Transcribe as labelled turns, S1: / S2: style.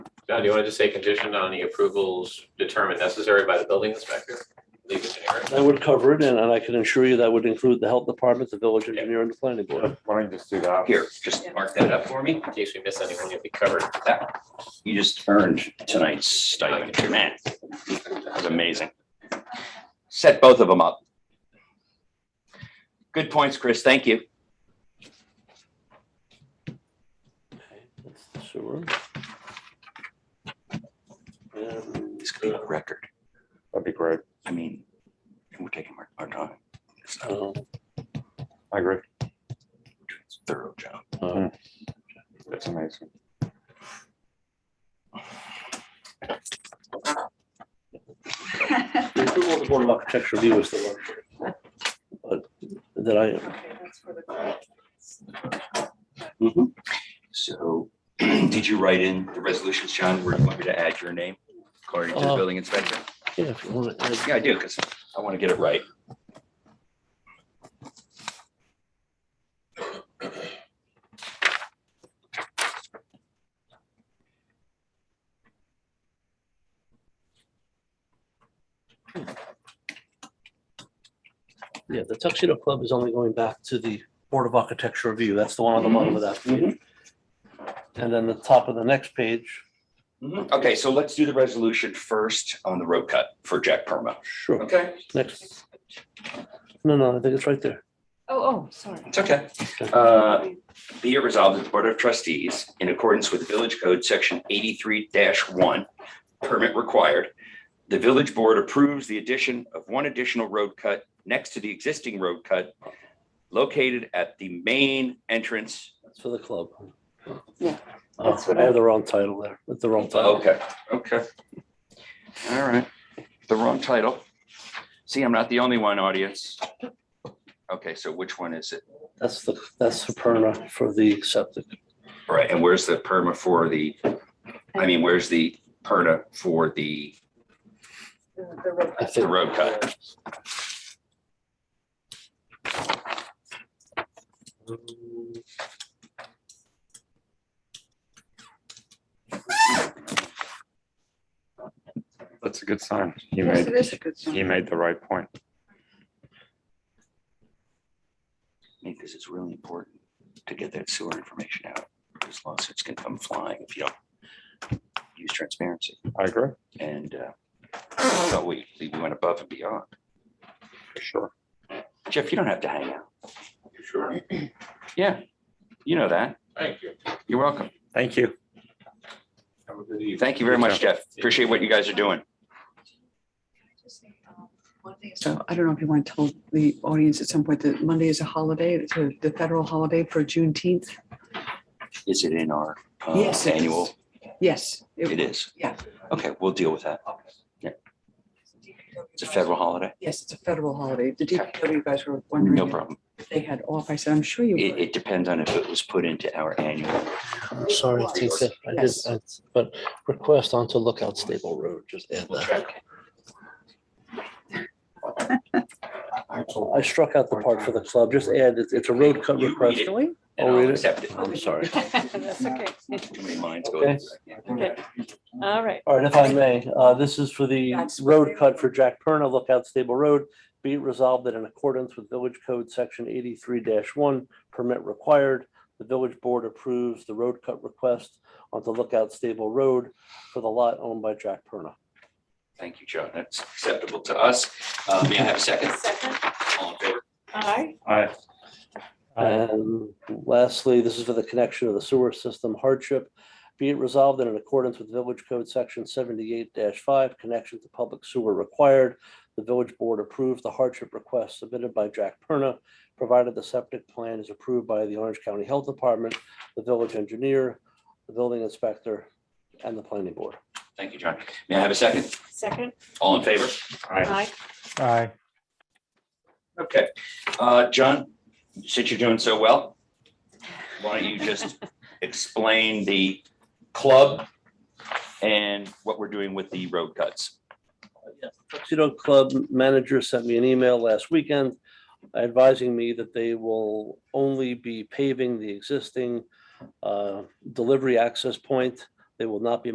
S1: John, do you want to just say conditioned on the approvals determined necessary by the building inspector? Leave it generic.
S2: That would cover it, and and I can assure you that would include the health department, the village engineer, and the planning board.
S3: Why don't you just do that?
S4: Here, just,
S1: Mark that up for me, in case we miss anyone, you'll be covered.
S4: you just earned tonight's stipend, man. That was amazing. Set both of them up. Good points, Chris. Thank you.
S2: That's the sewer. And
S4: This could be a record.
S3: That'd be great.
S4: I mean, we're taking our, our time. It's not
S2: um,
S3: I agree.
S4: a thorough job.
S2: uh,
S3: It's amazing.
S2: the approval of the Board of Architecture review is the one. But that I,
S5: Okay, that's for the.
S4: So did you write in the resolutions, John, where you want me to add your name according to the
S2: Uh,
S4: building inspector?
S2: yeah, if you uh, want to,
S4: Yeah, I do, because I want to get it right.
S2: yeah, the Tuxedo Club is only going back to the Board of Architecture review. That's the one on the bottom of that. page. And then the top of the next page,
S4: Mm-hmm. Okay, so let's do the resolution first on the road cut for Jack Perma.
S2: sure,
S4: Okay.
S2: next. No, no, I think it's right there.
S5: Oh, oh, sorry.
S4: It's okay. Uh, Be it resolved that the Board of Trustees, in accordance with Village Code Section eighty-three one, permit required, the Village Board approves the addition of one additional road cut next to the existing road cut located at the main entrance.
S2: It's for the club.
S5: Yeah,
S2: Oh,
S5: that's what
S2: I have the wrong title there, with the wrong title.
S4: Okay, okay. All right, the wrong title. See, I'm not the only one, audience. Okay, so which one is it?
S2: That's the, that's the perna for the septic.
S4: All Right, and where's the perma for the, I mean, where's the perna for the,
S5: The- the road-
S2: I
S4: the
S2: think
S4: road cut?
S3: That's a good sign. He
S5: Yes, it
S3: made,
S5: is a good
S3: he
S5: sign.
S3: made the right point.
S4: Because it's really important to get that sewer information out, because lawsuits can come flying if you don't use transparency.
S3: I agree,
S4: And uh, so we, we went above and beyond.
S3: for sure.
S4: Jeff, you don't have to hang out.
S1: Sure.
S4: Yeah, you know that.
S1: Thank you.
S4: You're welcome.
S3: Thank you.
S1: Have a good evening.
S4: Thank you very much, Jeff. Appreciate what you guys are doing.
S6: So I don't know if you want to tell the audience at some point that Monday is a holiday, it's a- the federal holiday for Juneteenth.
S4: Is it in our uh,
S6: Yes, it is.
S4: annual?
S6: Yes.
S4: It is.
S6: Yeah.
S4: Okay, we'll deal with that. It's a federal holiday.
S6: Yes, it's a federal holiday. The DPW guys were wondering.
S4: No
S6: if
S4: problem.
S6: They had off. I said, I'm sure you
S4: It,
S6: would.
S4: it depends on if it was put into our annual.
S2: I'm sorry, it's taken. I did,
S6: Yes.
S2: I- but request onto Lookout Stable Road, just add that. I struck out the part for the club, just add, it's, it's a road cut
S4: You read
S2: request.
S4: it.
S6: Really?
S2: Oh,
S4: and I'll
S2: really?
S4: accept it.
S2: I'm sorry.
S5: That's okay.
S4: Too many minds going.
S5: Okay. All right.
S2: All right, if I may, uh, this is for the
S6: That's-
S2: road cut for Jack Perna, Lookout Stable Road. Be it resolved that in accordance with Village Code Section eighty-three one, permit required, the village board approves the road cut request onto Lookout Stable Road for the lot owned by Jack Perna.
S4: Thank you, Joe. That's acceptable to us. Uh, May I have a second?
S5: Second,
S4: All in favor?
S5: all right.
S3: All right.
S2: And lastly, this is for the connection of the sewer system hardship. Be it resolved that in accordance with Village Code Section seventy-eight five, connection to public sewer required, the village board approves the hardship request submitted by Jack Perna, provided the septic plan is approved by the Orange County Health Department, the village engineer, the building inspector, and the planning board.
S4: Thank you, John. May I have a second?
S5: Second,
S4: All in favor?
S5: all right.
S3: Aye.
S4: Okay. Uh, John, since you're doing so well, why don't you just explain the club and what we're doing with the road cuts?
S2: Tuxedo Club manager sent me an email last weekend advising me that they will only be paving the existing uh, delivery access point. They will not be